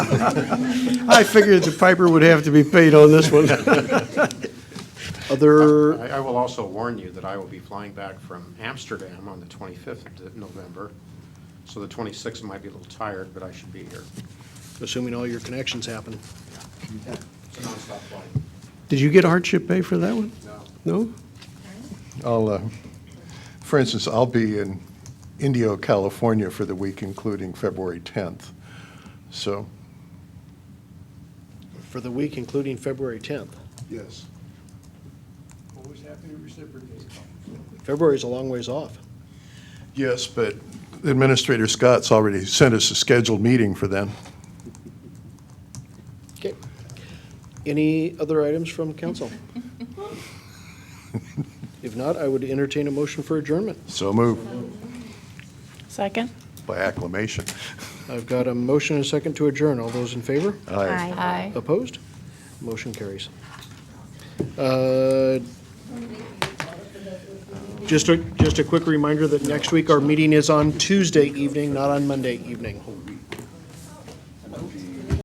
I figured the piper would have to be paid on this one. Other, I I will also warn you that I will be flying back from Amsterdam on the 25th of November, so the 26th might be a little tired, but I should be here. assuming all your connections happen. It's a nonstop flight. Did you get hardship pay for that one? No. No? I'll, uh, for instance, I'll be in Indio, California for the week, including February 10th. So, For the week including February 10th. yes. Always happy to reciprocate. February's a long ways off. Yes, but Administrator Scott's already sent us a scheduled meeting for then. Okay. Any other items from council? If not, I would entertain a motion for adjournment. So move Second? by acclamation. I've got a motion and a second to adjourn. All those in favor? Aye. Aye. Opposed? Motion carries. Uh, Just a, just a quick reminder that next week, our meeting is on Tuesday evening, not on Monday evening.